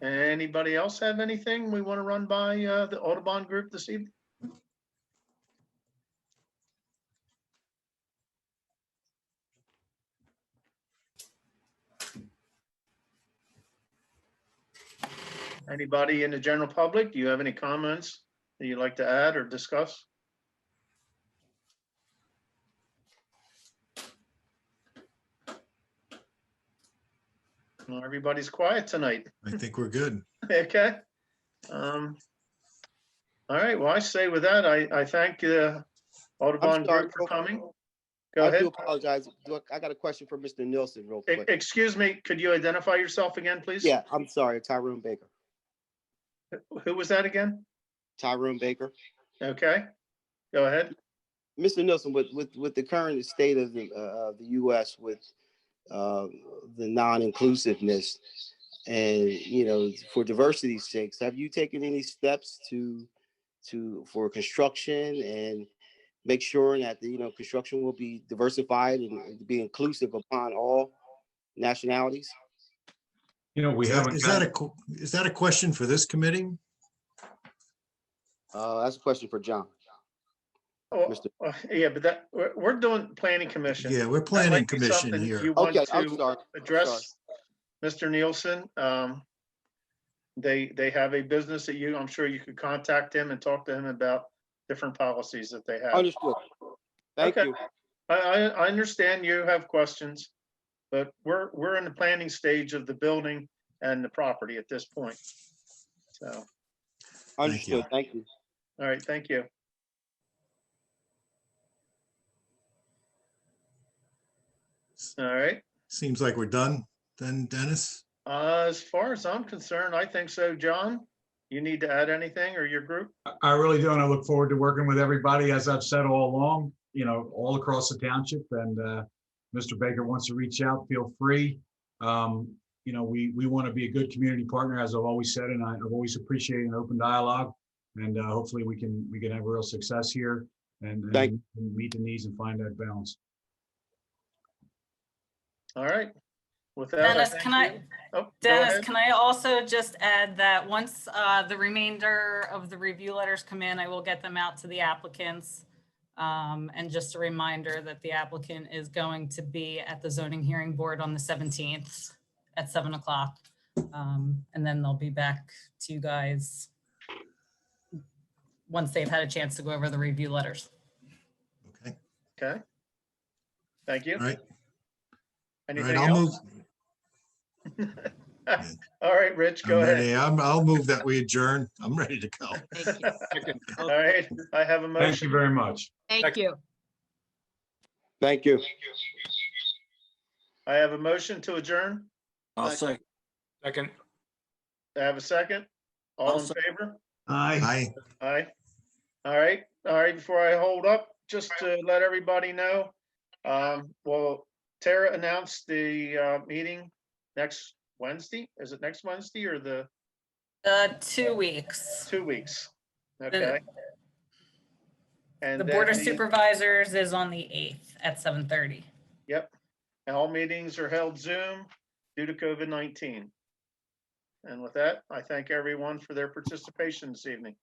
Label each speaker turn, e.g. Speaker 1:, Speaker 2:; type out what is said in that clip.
Speaker 1: Anybody else have anything we want to run by uh, the Audubon Group this evening? Anybody in the general public, do you have any comments that you'd like to add or discuss? Well, Everybody's quiet tonight.
Speaker 2: I think we're good.
Speaker 1: Okay. Um, All right, well, I say with that, I, I thank uh, Audubon
Speaker 3: I'm sorry,
Speaker 1: Group for coming. Go
Speaker 3: I do
Speaker 1: ahead.
Speaker 3: apologize. Look, I got a question for Mr. Nielsen real
Speaker 1: E-
Speaker 3: quick.
Speaker 1: Excuse me, could you identify yourself again, please?
Speaker 3: Yeah, I'm sorry, Tyrone Baker.
Speaker 1: Who was that again?
Speaker 3: Tyrone Baker.
Speaker 1: Okay, go ahead.
Speaker 3: Mr. Nielsen, with, with, with the current state of the, uh, of the US with, uh, the non-inclusiveness and, you know, for diversity's sakes, have you taken any steps to, to, for construction and make sure that, the you know, construction will be diversified and be inclusive upon all nationalities?
Speaker 4: You know, we
Speaker 2: Is that-
Speaker 4: haven't,
Speaker 2: Is that
Speaker 4: got-
Speaker 2: a, qu- is that a question for this committee?
Speaker 3: Uh, that's a question for John.
Speaker 1: Oh,
Speaker 3: Mr.
Speaker 1: uh, Yeah, but that, we're, we're doing planning commission.
Speaker 2: Yeah, we're
Speaker 1: That
Speaker 2: planning
Speaker 1: might be
Speaker 2: commission
Speaker 1: something
Speaker 2: here.
Speaker 1: You want
Speaker 3: Okay, I'm
Speaker 1: to
Speaker 3: sorry. I'm sorry.
Speaker 1: address, Mr. Nielsen? Um, They, they have a business that you, I'm sure you could contact him and talk to him about different policies that they have.
Speaker 3: Understood. Thank
Speaker 1: Okay.
Speaker 3: you.
Speaker 1: I, I, I understand you have questions, but we're, we're in the planning stage of the building and the property at this point. So,
Speaker 2: you.
Speaker 3: Understood. Thank you.
Speaker 1: all right, thank you. All right,
Speaker 2: Seems like we're done then, Dennis.
Speaker 1: uh, as far as I'm concerned, I think so, John. You need to add anything or your group?
Speaker 4: I really do, and I look forward to working with everybody, as I've said all along, you know, all across the township, and uh, Mr. Baker wants to reach out, feel free. Um, You know, we, we want to be a good community partner, as I've always said, and I- I've always appreciated an open dialogue. And uh, hopefully, we can, we can have real success here and and
Speaker 3: Thank-
Speaker 4: meet the needs and find that balance.
Speaker 1: All right. With that.
Speaker 5: Dennis, can I,
Speaker 1: Oh,
Speaker 5: Dennis,
Speaker 1: Dennis?
Speaker 5: can I also just add that once uh, the remainder of the review letters come in, I will get them out to the applicants. Um, And just a reminder that the applicant is going to be at the zoning hearing board on the 17th at 7 o'clock. Um, And then they'll be back to you guys once they've had a chance to go over the review letters.
Speaker 2: Okay,
Speaker 1: Okay. Thank you.
Speaker 2: all right. All right,
Speaker 1: Anything
Speaker 2: I'll move,
Speaker 1: else? All right, Rich,
Speaker 2: I'm
Speaker 1: go ahead.
Speaker 2: ready. I'm, I'll move that we adjourn. I'm ready to go.
Speaker 5: Thank you.
Speaker 1: All right, I have a
Speaker 4: Thank you
Speaker 1: motion.
Speaker 4: very much.
Speaker 6: Thank you.
Speaker 3: Thank you.
Speaker 1: I have a motion to adjourn.
Speaker 7: I'll
Speaker 1: Second.
Speaker 7: second. Second.
Speaker 1: I have a second. All
Speaker 7: I'll
Speaker 1: in
Speaker 7: sec-
Speaker 1: favor?
Speaker 4: Aye.
Speaker 2: Aye.
Speaker 1: Aye. All right, all right, before I hold up, just to let everybody know, um, well, Tara announced the, uh, meeting next Wednesday. Is it next Wednesday or the
Speaker 5: Uh, Two weeks.
Speaker 1: two weeks? Okay. And
Speaker 5: The Board of
Speaker 1: then
Speaker 5: Supervisors is on the 8th at 7:30.
Speaker 1: All meetings are held Zoom due to COVID-19. And with that, I thank everyone for their participation this evening.